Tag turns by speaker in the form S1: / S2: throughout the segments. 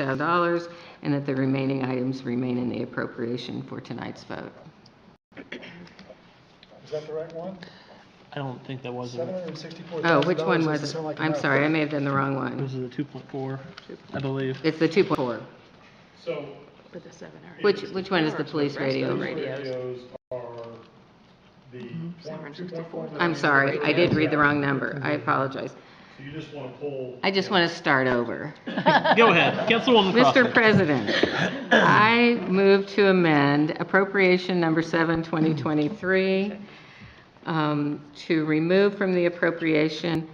S1: $4,000, and that the remaining items remain in the appropriation for tonight's vote.
S2: Is that the right one?
S3: I don't think that was,
S2: Seven
S3: it
S2: hundred and sixty-four
S1: Oh,
S2: thousand
S1: which one was it?
S2: doesn't sound like
S1: I'm
S2: enough.
S1: sorry, I may have done the wrong one.
S3: was the two point four, I believe.
S1: It's the 2.4.
S4: So
S5: With the seven hundred.
S1: Which, which one is the police radio?
S4: these radios are the
S5: Mm-hmm.
S4: one-
S5: 764.
S4: 2.4
S1: I'm sorry, I did read the wrong number. I apologize.
S4: So you just want to pull.
S1: I just want to start over.
S3: Go ahead, Councilwoman
S1: Mr.
S3: Crossen.
S1: President, I move to amend appropriation number 7, 2023, um, to remove from the appropriation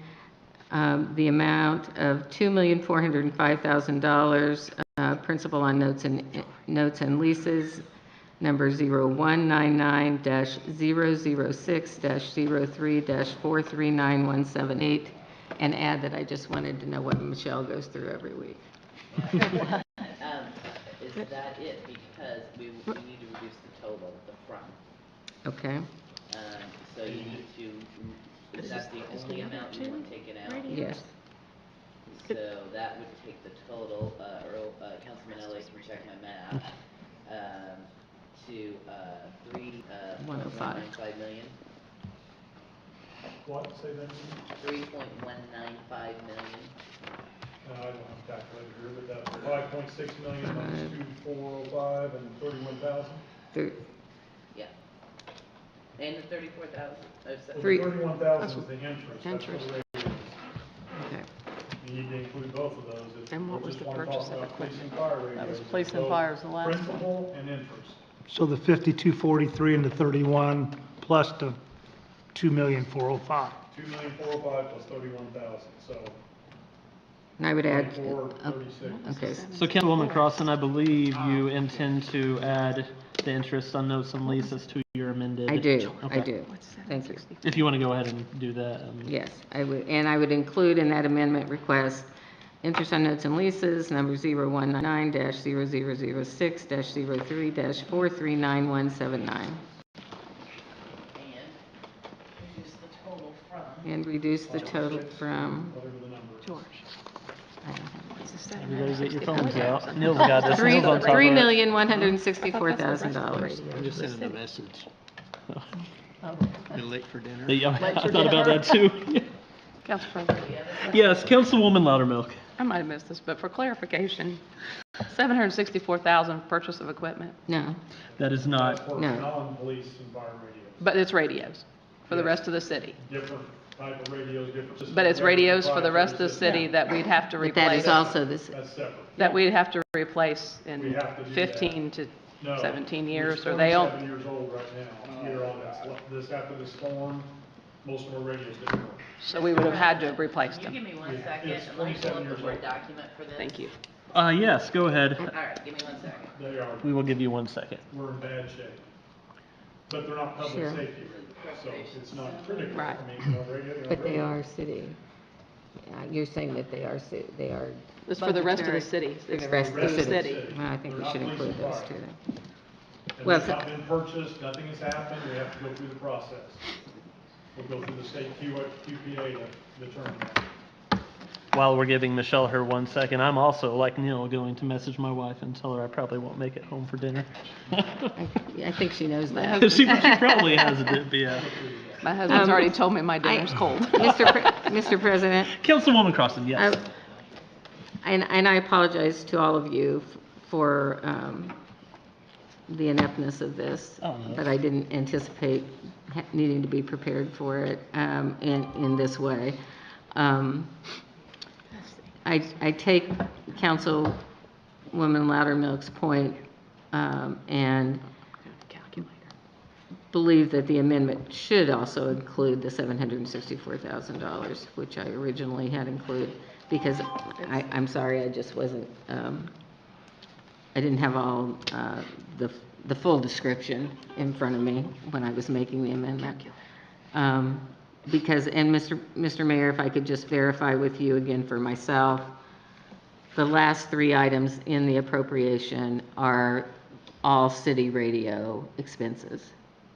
S1: um, the amount of $2,405,000 uh, principal on notes and, notes and leases, number 0199-006-03-4391178, and add that I just wanted to know what Michelle goes through every week.
S6: Um, Is that it? Because we, we need to reduce the total at the front.
S1: Okay,
S6: Um, So you need to, is that the only amount you want taken out?
S1: yes.
S6: So that would take the total, uh, Earl, uh, Councilman Ellis can check my math, um, to, uh, three, uh.
S1: 105.
S6: 1.195 million,
S2: What, say that again?
S6: three point one nine five million.
S2: No, I don't have a calculator here, but that's five point six million minus two, four, oh, five, and thirty-one thousand.
S1: Thir-
S6: yeah. And the thirty-four thousand, oh, so-
S1: Three.
S2: Thirty-one thousand is the interest. that's
S5: Interest.
S2: what the rate is.
S1: okay.
S2: You need to include both of those. if
S5: And what
S2: we
S5: was
S2: just
S5: the
S2: wanna talk
S5: purchase of
S2: about police and fire
S5: That was
S2: radios.
S5: police and
S2: So
S5: fire was the last one.
S2: Principal and interest.
S7: So the 5243 and the 31 plus the 2,405.
S2: Two million, four oh five plus thirty-one thousand, so
S1: And I would add,
S2: thirty-four,
S1: uh,
S2: thirty-six.
S1: okay,
S3: So Councilwoman Crossen, I believe you intend to add the interest on notes and leases to your amended.
S1: I do, I
S3: Okay.
S1: do. Thank you.
S3: If you want to go ahead and do that. um,
S1: Yes, I would, and I would include in that amendment request, interest on notes and leases, number 0199-0006-03-4391179,
S6: and reduce the total from
S1: and reduce the total from,
S2: Whatever the number is.
S5: George.
S1: I don't know,
S3: Everybody get your phones out. Neil's got this.
S1: three-
S3: Neil's on top of it.
S1: $3,164,000.
S8: I just sent him a message. Been late for dinner.
S3: Yeah,
S5: Lights
S3: I
S5: are
S3: thought about that too.
S5: Council President,
S3: Yes, Councilwoman Loudermilk.
S5: I might have missed this, but for clarification, seven hundred and sixty-four thousand purchase of equipment,
S1: No,
S3: That is
S2: That's
S3: not,
S2: for
S1: No.
S2: non-police and fire radios,
S5: but it's radios for the rest of the city.
S2: different type of radios, different systems.
S5: But it's
S2: different
S5: radios for the rest of the
S2: proprietary
S5: city that we'd have to
S1: but that
S5: replace,
S1: is also this,
S2: systems. That's separate.
S5: that we'd have to replace
S2: We
S5: in
S2: have to do that.
S5: fifteen to
S2: No.
S5: seventeen years,
S2: We're
S5: or they'll,
S2: 27 years old right now, here on this, this, after the storm, most of our radios didn't work.
S5: so we would have had to have replaced
S6: Can you
S5: them.
S6: give me one
S2: Yeah,
S6: second,
S2: it's
S6: and let me pull
S2: 27
S6: up
S2: years
S6: the Word
S2: old.
S6: document for this?
S5: Thank you.
S3: uh, yes, go
S6: All
S3: ahead.
S6: right, give me one second.
S2: They are,
S3: We will give you one second.
S2: we're in bad shape. But they're not public
S1: Sure.
S2: safety radios, so it's not critical.
S5: Right.
S2: I mean, no radio, no
S1: but they
S2: radio.
S1: are city. Yeah, You're saying that they are, ci- they are,
S5: It's for the rest of the
S1: Budgetary.
S5: city.
S1: for
S5: It's
S1: the rest of the
S5: Rest of the
S1: city.
S5: city.
S1: Well, I think
S2: They're
S1: we
S2: not
S1: should
S2: police and
S1: include those
S2: fire.
S1: two then.
S2: And
S1: Well,
S2: they've
S1: so-
S2: not been purchased, nothing has happened, we have to go through the process. We'll go through the state Q- QPA to determine that.
S3: While we're giving Michelle her one second, I'm also, like Neil, going to message my wife and tell her I probably won't make it home for dinner.
S1: I think she knows that.
S3: She, she probably has a dip, yeah.
S5: My husband's
S1: Um,
S5: already told me my
S1: I-
S5: dinner's cold.
S1: Mr. Pre- Mr. President,
S3: Councilwoman Crossen, yes.
S1: I- And, and I apologize to all of you f- for um, the ineptness of this,
S3: Oh, no.
S1: but I didn't anticipate ha- needing to be prepared for it um, in, in this way. Um, I, I take Councilwoman Loudermilk's point, um, and believe that the amendment should also include the $764,000, which I originally had included, because I, I'm sorry, I just wasn't, um, I didn't have all uh, the, the full description in front of me when I was making the amendment. Um, Because, and Mr. Mr. Mayor, if I could just verify with you again for myself, the last three items in the appropriation are all city radio expenses.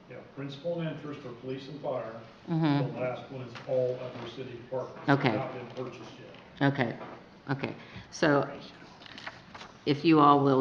S2: Yeah, principal and interest for police and fire.
S1: Mm-hmm.
S2: The last one is all other city departments. They've
S1: Okay.
S2: Not been purchased yet.
S1: Okay, okay. So if you all will